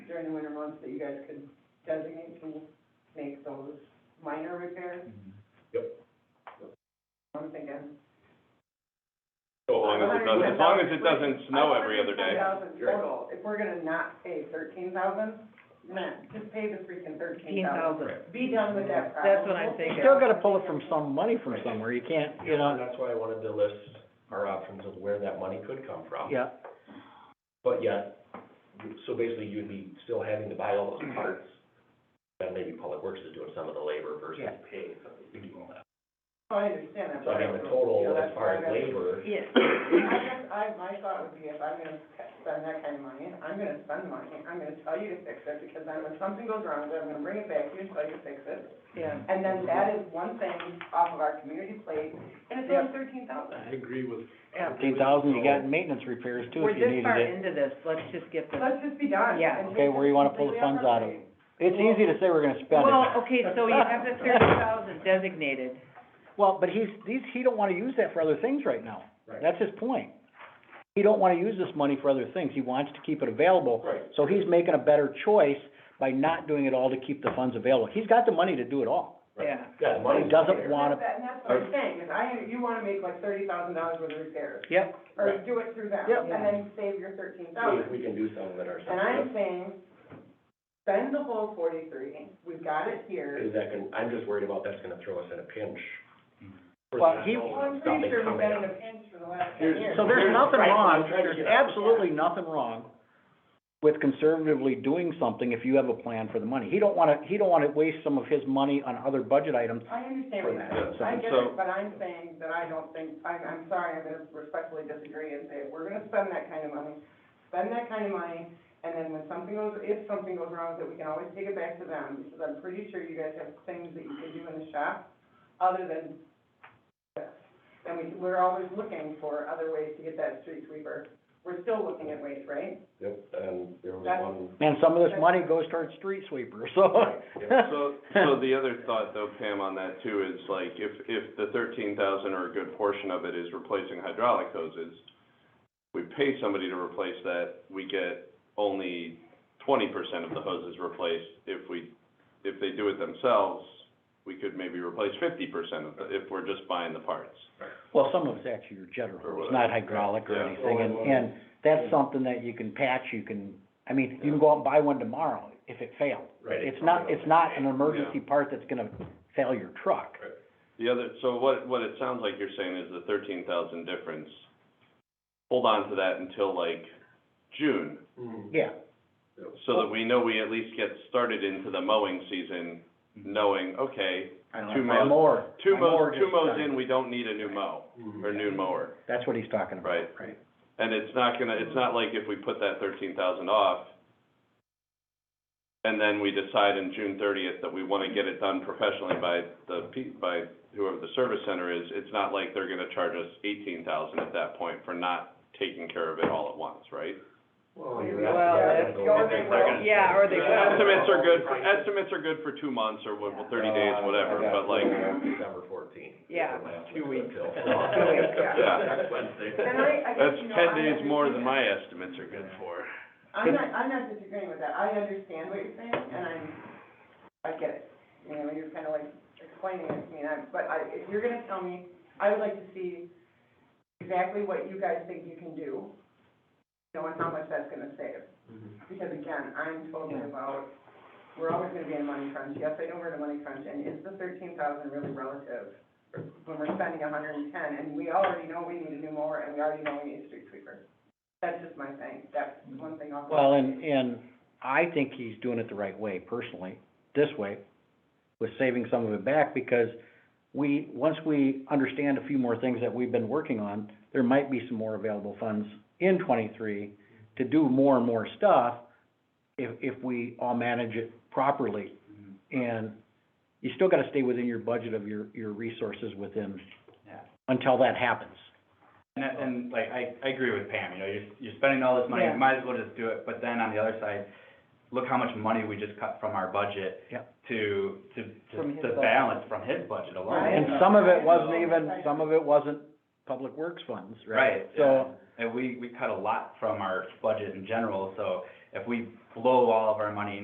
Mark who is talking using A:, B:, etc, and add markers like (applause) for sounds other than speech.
A: during the winter months that you guys could designate to make those minor repairs?
B: Mm-hmm.
A: I'm thinking.
C: So long as it doesn't, as long as it doesn't snow every other
A: I
C: day.
A: want it to be 10,000 total, if we're gonna not pay thirteen thousand, man, just pay the freaking thirteen
D: fifteen
A: thousand.
D: thousand.
A: Be done with that problem.
D: That's what I'm
A: We'll figure
D: thinking.
E: Still gotta pull it from some, money from somewhere, you can't,
B: And
E: you know,
B: that's why I wanted to list our options of where that money could come from.
E: yeah,
B: But yet, so basically you'd be still having to buy all
E: Mm-hmm.
B: those parts, and maybe Public Works is doing some of the labor versus
E: Yeah.
B: paying somebody to do all that.
A: Oh, I understand that.
B: So I mean, the total as far as labor,
D: Yes.
A: I guess, I, my thought would be if I'm gonna spend that kind of money, I'm gonna spend money, I'm gonna tell you to fix it, because then if something goes wrong, then I'm gonna bring it back here and tell you to fix it.
D: Yeah.
A: And then that is one thing off of our community plate, and it's only thirteen thousand.
F: agree with.
D: Yeah.
E: fifteen thousand, you got maintenance repairs too,
D: We're
E: if
D: this
E: you needed
D: far
E: it.
D: into this, let's just get this.
A: Let's just be done.
D: Yeah.
A: and
E: Okay,
A: take
E: where you wanna pull the
A: completely off our
E: funds out of.
A: plate.
E: It's easy to say we're gonna spend
D: Well,
E: it,
D: okay, so you have (laughs) the thirty thousand designated.
E: well, but he's, these, he don't wanna use that for other things right now, that's his point. He don't wanna use this money for other things, he wants to keep it available,
B: right,
E: so he's making a better choice by not doing it all to keep the funds available, he's got the money to do it all.
D: Yeah.
B: yeah, the
E: But he
B: money's
E: doesn't
B: there.
E: wanna-
A: That- And that's what I'm saying, is I, you wanna make like thirty thousand dollars worth of repairs,
E: Yep.
A: or
B: Right.
A: do it through them,
E: Yep.
A: and then save your thirteen thousand.
B: We, we can do some of it ourselves.
A: And I'm saying, spend the whole forty-three, we've got it here.
B: Is that gonna- I'm just worried about that's gonna throw us in a pinch. for
E: Well,
B: the
E: he-
B: snow
A: Well,
B: and
A: I'm pretty
B: something
A: sure we've
B: coming
A: been in
B: up.
A: a pinch for the last ten
B: Here's-
A: years.
E: So there's nothing
B: Right,
E: wrong,
B: I'm trying to
E: there's
B: get out.
E: absolutely nothing wrong with conservatively doing something if you have a plan for the money. He don't wanna, he don't wanna waste some of his money on other budget items.
A: I understand
E: For
A: that,
C: that,
A: I get
C: so-
A: it, but I'm saying that I don't think, I'm, I'm sorry, I'm gonna respectfully disagree and say, if we're gonna spend that kind of money, spend that kind of money, and then when something goes, if something goes wrong with it, we can always take it back to them, because I'm pretty sure you guys have things that you can do in the shop, other than this. And we, we're always looking for other ways to get that street sweeper, we're still looking at ways, right?
C: (laughs)
B: Yep, and there was
A: That's-
B: one.
E: And some of this money goes towards street sweeper, so.
C: So, so the other thought though, Pam, on that too, is like, if, if the thirteen thousand or a good portion of it is replacing hydraulic hoses, we pay somebody to replace that, we get only twenty percent of the hoses replaced. If we, if they do it themselves, we could maybe replace fifty percent of the, if we're just buying the parts.
E: (laughs) Well, some of it's actually your jetter hose, not hydraulic or
C: Yeah.
E: anything, and, and that's something that you can patch, you can, I mean, you can go out and buy one tomorrow if it failed.
B: Right.
E: It's
C: Oh,
E: not, it's not an emergency part that's gonna fail your truck.
C: The other, so what, what it sounds like you're saying is the thirteen thousand difference, hold on to that until like June,
B: Mhm.
E: Yeah,
C: so that we know we at least get started into the mowing season, knowing, okay,
E: I
C: Two
E: don't know,
C: mows-
E: my mower,
C: two
E: Mm-hmm. my mower
C: mows, two
E: just
C: mows
E: died.
C: in, we don't need a new mow,
B: Mhm.
C: or new mower.
E: That's what he's talking about.
C: Right.
E: Right.
C: And it's not gonna, it's not like if we put that thirteen thousand off, and then we decide in June thirtieth that we wanna get it done professionally by the, pe- by whoever the service center is, it's not like they're gonna charge us eighteen thousand at that point for not taking care of it all at once, right?
B: Well,
A: you're
B: you're
A: right.
B: asking.
A: Well, that's- or they
B: They're gonna-
D: will. Yeah, or they
C: The
D: will.
C: Estimates are good, for- estimates are good for two months or what- thirty days,
B: Uh,
C: whatever,
B: I got
C: but like,
B: till December fourteenth.
D: Yeah.
B: Two weeks. Two weeks,
A: yeah.
C: Yeah.
B: (laughs) Next Wednesday.
A: And I, I guess,
C: that's
A: you know,
C: ten
A: I
C: days more than
A: understand-
C: my estimates are good for.
A: I'm not, I'm not disagreeing with that, I understand what you're saying, and I'm, I get it, you know, you're kinda like explaining it to me, and I, but I, if you're gonna tell me, I would like to see exactly what you guys think you can do, you know, and how much that's gonna save, because again, I'm totally
D: Yeah.
A: about, we're always gonna be in a money crunch, yes, I know we're in a money crunch, and is the thirteen thousand really relative? When we're spending a hundred and ten, and we already know we need a new mower, and we already know we need a street sweeper, that's just my thing, that's one thing off. the-
E: Well, and, and I think he's doing it the right way personally, this way, with saving some of it back, because we, once we understand a few more things that we've been working on, there might be some more available funds in twenty-three to do more and more stuff if, if we all manage it properly.
G: Mm-hmm.
E: And you still gotta stay within your budget of your, your resources within,
G: Yeah.
E: until that happens.
G: And, that- and like, I, I agree with Pam, you know, you're, you're spending all this money,
D: Yeah.
G: you might as well just do it, but then on the other side, look how much money we just cut from our budget
E: Yep.
G: to, to,
D: From his
G: to, to
D: budget.
G: balance from his budget alone.
A: Right.
E: And
G: you know?
E: some of it wasn't even, some of it wasn't public works funds, right?
G: Right,
E: So,
G: yeah. And we, we cut a lot from our budget in general, so if we blow all of our money